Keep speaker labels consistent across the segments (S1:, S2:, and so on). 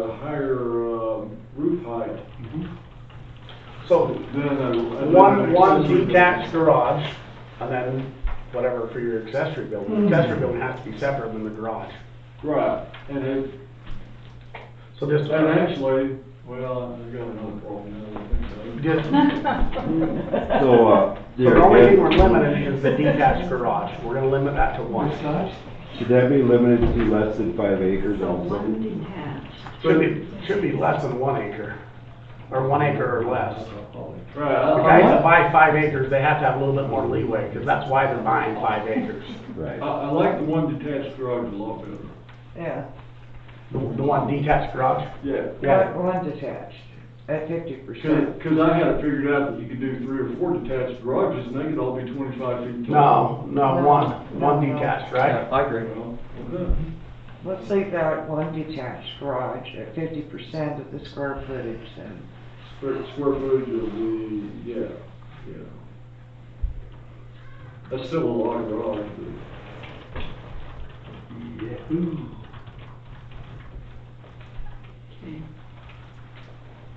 S1: a higher um, roof height.
S2: So,
S1: Then I. then
S2: one,
S1: I-
S2: one detached garage, and then whatever for your accessory building.
S3: Mhm.
S2: Accessory building has to be separate than the garage.
S1: Right, and it,
S2: So just,
S1: and actually, well, I've got another problem now, I think so.
S2: just,
S4: So, uh,
S2: so
S4: there
S2: the only thing we're
S4: again,
S2: limiting is the detached garage. We're gonna limit that to one.
S4: should that be limited to less than five acres
S3: So
S4: also?
S3: one detached.
S2: Should be, should be less than one acre, or one acre or less.
S1: Right,
S2: The guys
S1: I-
S2: that buy five acres, they have to have a little bit more leeway, because that's why they're buying five acres.
S1: I,
S4: Right.
S1: I like the one detached garage a lot better.
S5: Yeah,
S2: The, the one detached garage.
S1: Yeah.
S2: Yeah.
S5: one one detached, at fifty
S1: Cause,
S5: percent.
S1: 'cause I had it figured out that you could do three or four detached garages and they could all be twenty-five feet tall.
S2: No, no, one,
S5: No,
S2: one
S5: no.
S2: detached, right?
S6: I agree.
S1: Okay.
S5: Let's leave that one detached garage at fifty percent of the square footage then.
S1: Square, square footage of the, yeah, yeah. That's still a lot of garage, but.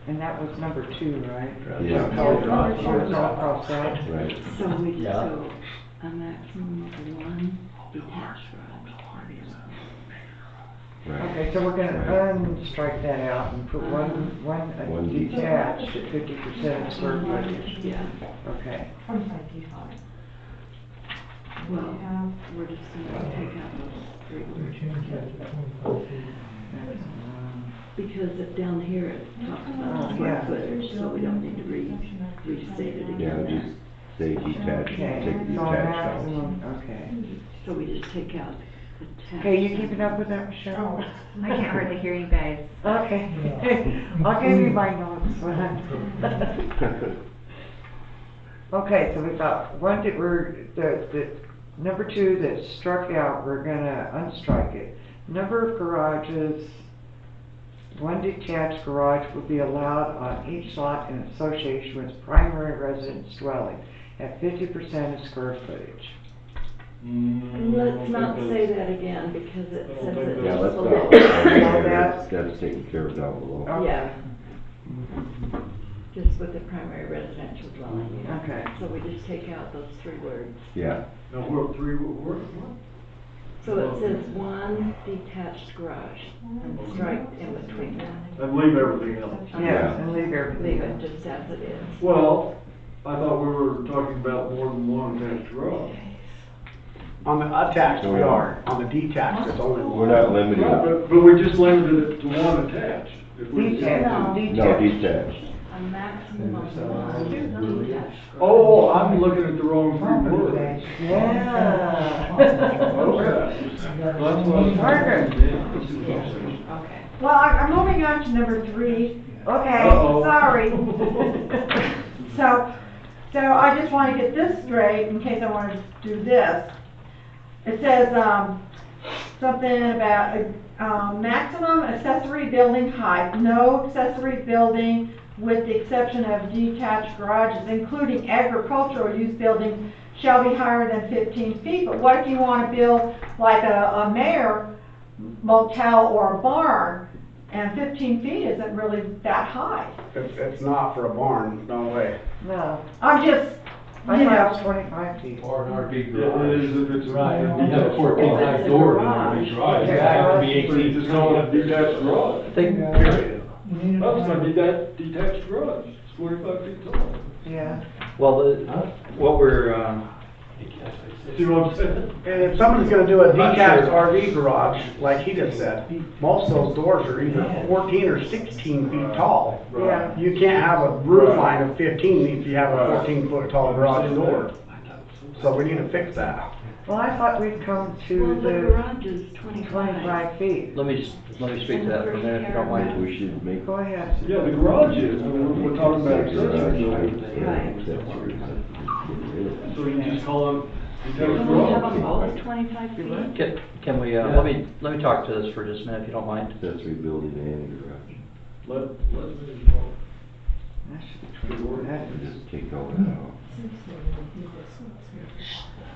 S5: And that was number two, right?
S4: Yeah.
S2: Color garage.
S5: Oh, it's all crossed out.
S4: Right.
S3: So we,
S6: Yeah.
S3: so a maximum of one detached
S4: Right.
S5: Okay, so we're gonna unstrike that out and put one, one uh,
S4: One detached.
S5: detached at fifty percent of
S3: garage.
S5: square footage.
S3: Yeah,
S5: Okay,
S3: well, we're just gonna take out those three words.
S5: that's, um,
S3: Because it- down here it talks
S5: Oh,
S3: about square
S5: yeah.
S3: footage, so we don't need to re, restate it
S4: Yeah,
S3: again.
S4: just say detached,
S5: okay,
S4: take
S5: so
S4: detached out.
S5: maximum, okay.
S3: So we just take out the tax.
S5: Okay, you keeping up with that, Michelle?
S7: Oh, I can't hardly hear you guys.
S5: Okay, I'll give you my notes. Okay, so we got one that we're, the, the, number two that struck out, we're gonna unstrike it. Number of garages, one detached garage will be allowed on each lot in association with primary residence dwelling at fifty percent of square footage.
S1: Mm, I
S3: Let's
S1: don't
S3: not
S1: think
S3: say
S1: that's-
S3: that again because it
S1: I don't
S3: says
S1: think
S3: it.
S4: Yeah, let's
S3: just
S4: not,
S3: below.
S4: that's, that's taken care of down below.
S5: Okay.
S3: Yeah. Just with the primary residential dwelling, yeah.
S5: Okay.
S3: So we just take out those three words.
S4: Yeah,
S1: Now, what, three, what, what?
S3: So it says one detached garage and strike in between that.
S1: And leave everything else.
S5: Yes, and leave everything
S3: Leave it
S5: else.
S3: just as it is.
S1: Well, I thought we were talking about more than one attached garage.
S2: On the attached, we are. On the detached, it's only
S4: we're
S2: one.
S4: not
S1: Right,
S4: limited,
S1: But, but we just limited it to one attached. If we-
S5: Detached,
S4: no
S5: detached.
S4: detached.
S3: A maximum of one detached.
S1: Oh, I'm looking at the wrong three words.
S5: Yeah.
S1: Okay. That's what I was-
S5: Margaret.
S1: Yeah.
S3: Okay.
S7: Well, I- I'm moving on to number three. Okay,
S1: Uh-oh.
S7: sorry. So, so I just want to get this straight in case I want to do this. It says, um, something about, um, maximum accessory building height. No accessory building with the exception of detached garages, including agricultural use buildings, shall be higher than fifteen feet. But what if you want to build like a, a mayor motel or a barn? And fifteen feet isn't really that high.
S2: It's, it's not for a barn, no way.
S5: No,
S7: I'm just,
S5: I
S7: you
S5: thought it was
S7: know,
S5: twenty-five feet.
S8: Or an RV
S1: It
S8: garage.
S1: is if it's.
S8: You have a fourteen high door in an RV garage,
S5: Yeah.
S8: it has to be
S1: So you
S8: eighteen.
S1: just call it a detached garage.
S8: Thing, period.
S1: That's my detached, detached garage, it's forty-five feet tall.
S5: Yeah,
S6: Well, the, what we're, um,
S1: See what I'm saying?
S2: And if somebody's gonna do a
S6: Not
S2: detached
S6: sure.
S2: RV garage, like he just said, most of those doors are either fourteen or sixteen feet tall.
S5: yeah.
S2: You can't have a roof
S1: Right.
S2: line of fifteen if you have a
S1: Right.
S2: fourteen foot tall garage door. So we need to fix that.
S5: Well, I thought we'd come
S3: Well,
S5: to
S3: the
S5: the
S3: garage is twenty-five.
S5: twenty-five feet.
S6: let me, just- let me speak to that for a minute, if you don't mind.
S4: We should make.
S5: Go ahead.
S1: Yeah, the garage is, but we're, we're talking about accessory building.
S4: Garage, yeah, accessories, get rid of that.
S1: So you just call it detached
S3: Can we have them
S1: garage.
S3: both twenty-five feet?
S6: Can, can we, uh, let me, let me talk to this for just a minute, if you don't mind.
S4: Accessory building and garage,
S1: Let, let me know.
S5: That should be twenty, that
S4: We
S5: is,
S4: just take all that out.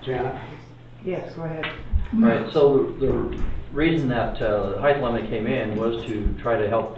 S2: Janet,
S5: Yes, go ahead.
S6: Right, so the the reason that uh, the height limit came in was to try to help